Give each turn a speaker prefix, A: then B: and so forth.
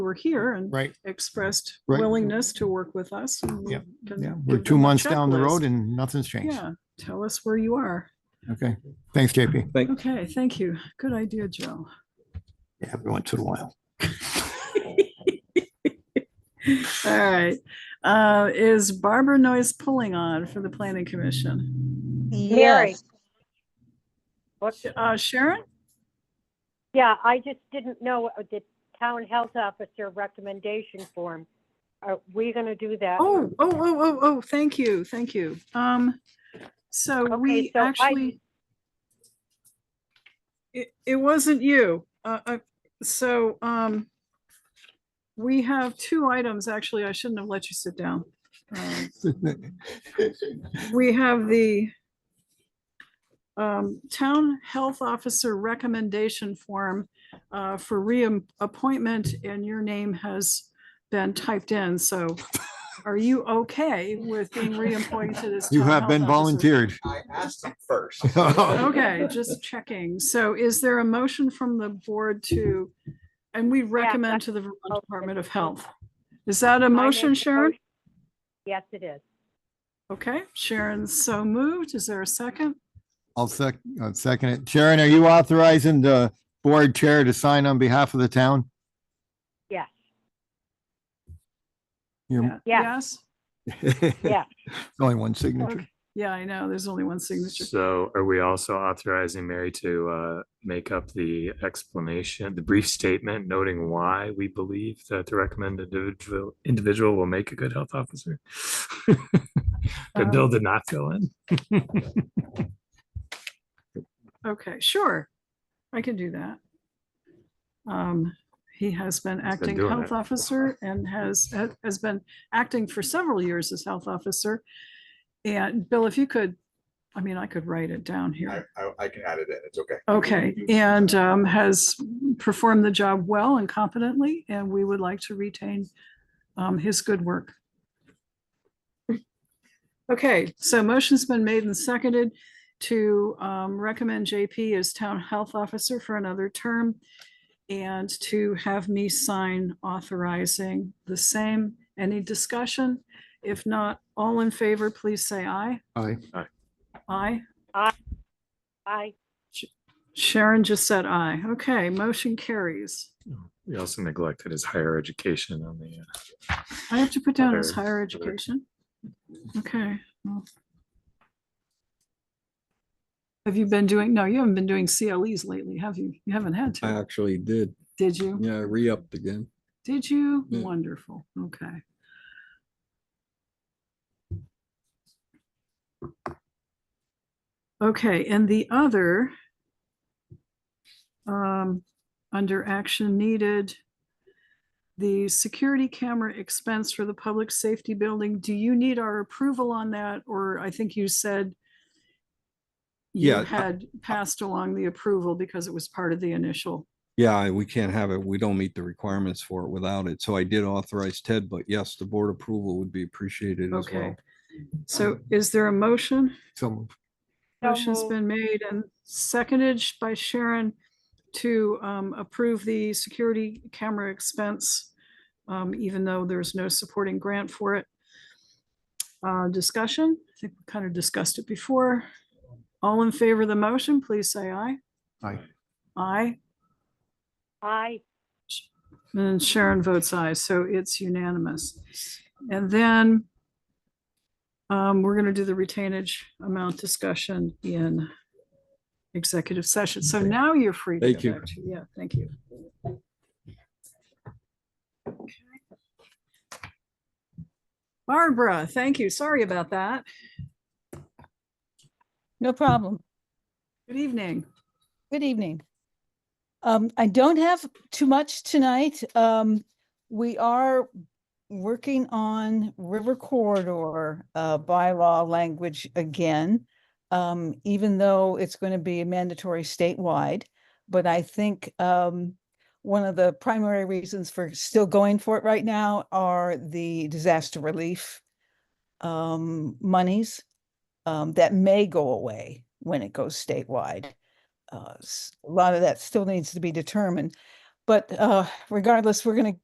A: were here and
B: Right,
A: expressed
B: Right.
A: willingness to work with us. and we
B: Yep.
A: can
B: yeah, we're
A: give
B: two
A: them a
B: months down the
A: checklist.
B: road and nothing's changed.
A: Yeah, tell us where you are.
B: Okay, thanks, JP.
C: Thank,
A: Okay, thank you. Good idea, Joe.
B: Yeah, every once in a while.
A: All right, uh, is Barbara Noyes pulling on for the planning commission?
D: Mary,
E: Yes,
D: what's,
A: Uh, Sharon?
D: yeah, I just didn't know uh, the town health officer recommendation form. Are we gonna do that?
A: Oh, oh, oh, oh, oh, thank you, thank you. Um, so
D: Okay,
A: we
D: so I-
A: actually. It, it wasn't you, uh, uh, so, um. We have two items, actually, I shouldn't have let you sit down. Um, We have the um, Town Health Officer Recommendation Form uh, for reappointment, and your name has been typed in, so are you okay with being reappointed as?
B: You
A: town
B: have
A: health
B: been
A: officer?
B: volunteered.
C: I asked him first.
A: Okay, just checking. So is there a motion from the board to, and we recommend to the Vermont Department of Health? Is that a
D: I make
A: motion,
D: the
A: Sharon?
D: motion. Yes, it is.
A: Okay, Sharon's so moved. Is there a second?
B: I'll sec, I'll second it. Sharon, are you authorizing the board chair to sign on behalf of the town?
D: Yes,
B: You're-
D: Yeah.
A: Yes?
D: yeah.
B: Only one signature.
A: Okay. Yeah, I know. There's only one signature.
F: So are we also authorizing Mary to uh, make up the explanation, the brief statement noting why we believe that the recommended individual, individual will make a good health officer? The bill
A: Um,
F: did not fill in.
A: Okay, sure. I can do that. Um, he has been acting
F: doing
A: health
F: it.
A: officer and has, ha- has been acting for several years as health officer. And Bill, if you could, I mean, I could write it down
C: I,
A: here.
C: I- I can add it in. It's okay.
A: Okay, and, um, has performed the job well and competently, and we would like to retain, um, his good work. Okay, so motion's been made and seconded to um, recommend JP as Town Health Officer for another term and to have me sign authorizing the same. Any discussion? If not, all in favor, please say aye.
B: Aye.
A: Aye.
D: I,
A: Sharon just said aye. Okay, motion carries.
F: We also neglected his higher education on the. uh,
A: I have to put down as
F: Other-
A: higher
F: other-
A: education. Okay. well. Have you been doing, no, you haven't been doing CLEs lately, have you? You haven't had
G: I
A: to,
F: Uh,
G: actually did.
A: did you?
G: Yeah, I re-upped again.
A: Did you?
G: Yeah.
A: Wonderful. Okay. Okay, and the other um, under action needed, the security camera expense for the public safety building, do you need our approval on that? Or I think you said you
G: Yeah, I-
A: had passed along the approval because it was part of the initial.
G: Yeah, we can't have it. We don't meet the requirements for it without it. So I did authorize Ted, but yes, the board approval would be appreciated as
A: Okay.
G: well.
A: So is there a motion?
B: So
D: So
A: Motion's
D: moved.
A: been made and seconded sh- by Sharon to um, approve the security camera expense, um, even though there's no supporting grant for it. Uh, Discussion, I think we kind of discussed it before. All in favor of the motion, please say aye.
B: Aye.
A: Aye,
D: I,
A: and Sharon votes aye, so it's unanimous. And then um, we're going to do the retainage amount discussion in executive session. So now you're free. to go
G: Thank you.
A: back to- Yeah, thank you. Barbara, thank you. Sorry about that.
E: no problem.
A: Good evening.
E: Good evening. Um, I don't have too much tonight. Um, we are working on river corridor uh bylaw language again. Um, even though it's going to be mandatory statewide, but I think um one of the primary reasons for still going for it right now are the disaster relief um monies um that may go away when it goes statewide uh, s- a lot of that still needs to be determined. But uh, regardless, we're going to